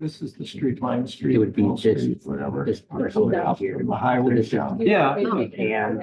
This is the street line, street. It would be Wall Street, just- Whatever. This parcel Out out here. From the highway This- down. Yeah. And, and.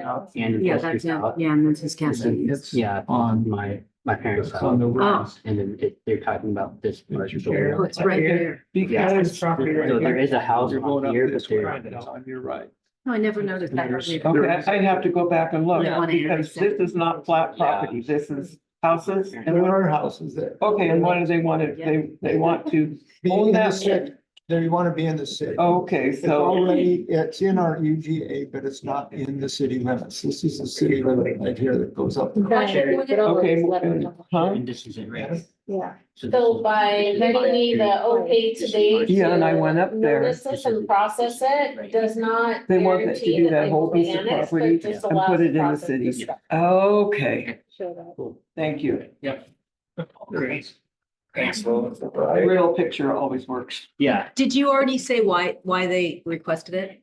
Yeah, that's it. Yeah, and that's his castle. It's Yeah, on on, my, my parents' it's on house. the Oh. west. And then it- they're talking about this parcel. Oh, it's right there. Because. So there is a house You're going up up here, but this way, there. and You're right. Oh, I never noticed that. earlier. Okay, I- I'd have to go back and look, Yeah. because this is not flat property, this is houses. And there are houses there. Okay, and what do they want to, they, they want to, Own that. There, you want to be in the city. Oh, okay, It's so, already, it's in our UGA, but it's not in the city limits. This is the city limit right here that goes up. okay. Huh? And this is it, right? Yeah, So this So is- by this is my letting me period. the okay today. Yeah, and I went up to there. Notice this and process it does not They want that to guarantee do that that they whole will be piece of annexed, but property just and put allows it in the process city. to start. Okay, show that. Cool. thank you. Yep. Great. Thanks, Will. A Right. real picture always works. Yeah, Did you already say why, why they requested it?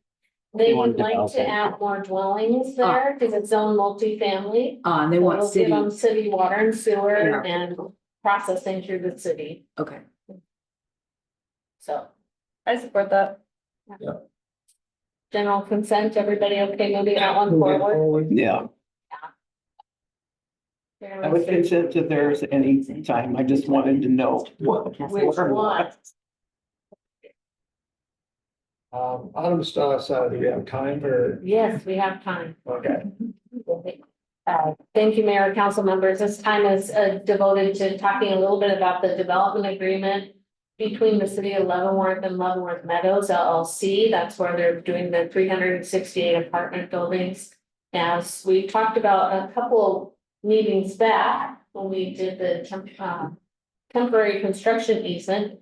They They want would to like develop to it. add more dwellings there because it's own multifamily. Uh, Ah. they want It'll give city, them city water and sewer Yeah. and processing through the city, okay. so. I support that. Yeah. General consent, everybody okay moving that one forward? Yeah, I would consent if there's any time, I just wanted to know. What? Which one? Um, Autumn Star side, do we uh, have time or? Yes, we have time. Okay. Uh, Thank you, Mayor, council members. This time is uh, devoted to talking a little bit about the development agreement between the city of Leavenworth and Leavenworth Meadows LLC. That's where they're doing the three hundred and sixty-eight apartment buildings. As we talked about a couple meetings back, when we did the temp- uh, temporary construction easement,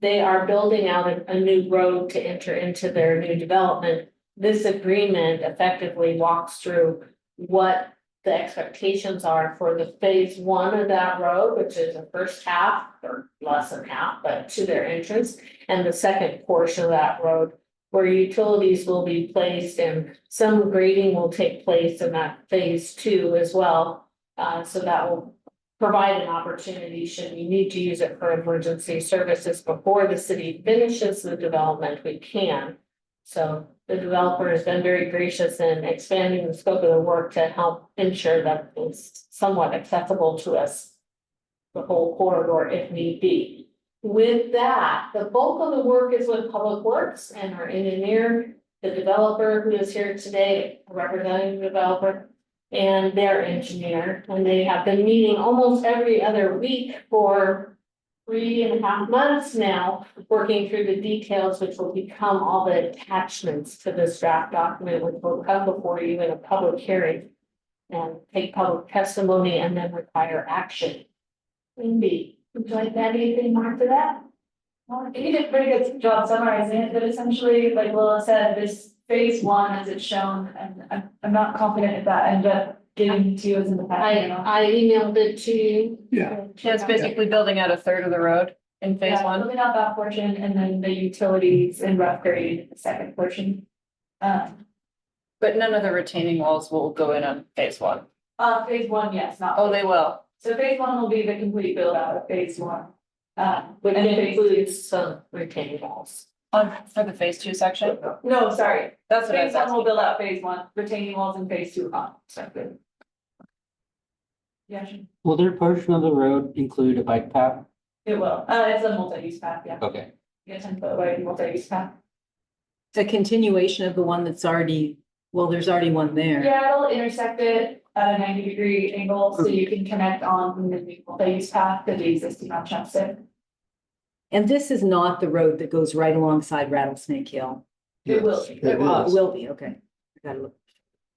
they are building out a- a new road to enter into their new development. This agreement effectively walks through what the expectations are for the phase one of that road, which is the first half or less than half, but to their entrance. And the second portion of that road where utilities will be placed and some grading will take place in that phase two as well. Uh, so that will provide an opportunity should we need to use it for emergency services before the city finishes the development, we can. So the developer has been very gracious in expanding the scope of the work to help ensure that it's somewhat accessible to us. The whole corridor if need be. With that, the bulk of the work is with Public Works and our engineer, the developer who is here today, representing the developer. And their engineer, and they have been meeting almost every other week for three and a half months now working through the details, which will become all the attachments to this draft document, which will come before you in a public hearing. And take public testimony and then require action. Wendy, would you like to add anything more to that? Well, I think you did a pretty good job summarizing it, but essentially, like Willa said, this phase one, as it's shown, and I'm, I'm not confident if that ended up getting to us in the back. I, I emailed it to you. Yeah. That's basically building out a third of the road in phase Yeah, one. Moving out that portion and then the utilities and rough grade, the second portion. Um, But none of the retaining walls will go in on phase one. uh, phase one, yes, not. Oh, they will. So phase one will be the complete build out of phase one. Uh, Which and phase two. includes some retaining walls. On, for the phase two section? No, sorry, That's what I phase was one asking. will build out phase one, retaining walls and phase two are not separate. Yeah, sure. Will their portion of the road include a bike path? It will, uh, it's a multi-use path, yeah, Okay. yeah, ten foot wide multi-use path. It's a continuation of the one that's already, well, there's already one there. Yeah, it'll intersect it at a ninety degree angle, so you can connect on the new multi-use path to the existing on Chumsted. And this is not the road that goes right alongside Rattlesnake Hill. It will. Yes, It Uh, is. will be, okay. I gotta look.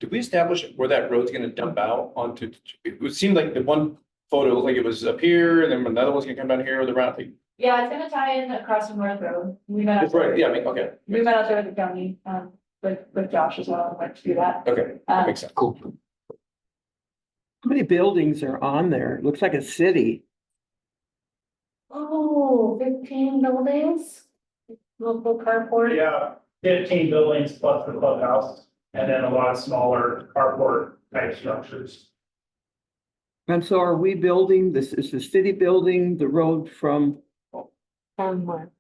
Did we establish where that road's gonna dump out onto, it would seem like the one photo, looked like it was up here, and then another one's gonna come down here with the round, like, Yeah, it's gonna tie in across from North Road, we met out it's right, there, yeah, I mean, okay, we met out there with the county, um, with, with Josh as well, went to do that. okay, that Um, makes sense. Cool. How many buildings are on there? It Looks like a city. Oh, fifteen buildings? Local carport? Yeah, fifteen buildings plus the clubhouse, and then a lot of smaller carport type structures. And so are we building, this is the city building, the road from Somewhere.